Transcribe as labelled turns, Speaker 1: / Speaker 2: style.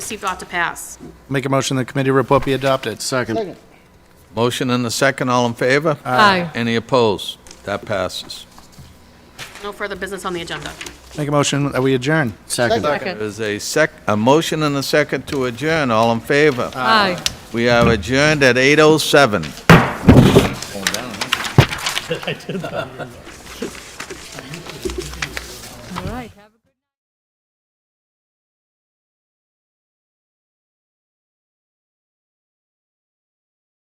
Speaker 1: received ought to pass.
Speaker 2: Make a motion the committee report be adopted.
Speaker 3: Second.
Speaker 4: Motion and a second, all in favor?
Speaker 5: Aye.
Speaker 4: Any opposed? That passes.
Speaker 1: No further business on the agenda.
Speaker 2: Make a motion that we adjourn.
Speaker 3: Second.
Speaker 5: Second.
Speaker 4: There's a sec, a motion and a second to adjourn, all in favor?
Speaker 5: Aye.
Speaker 4: We are adjourned at 8:07.
Speaker 5: All right.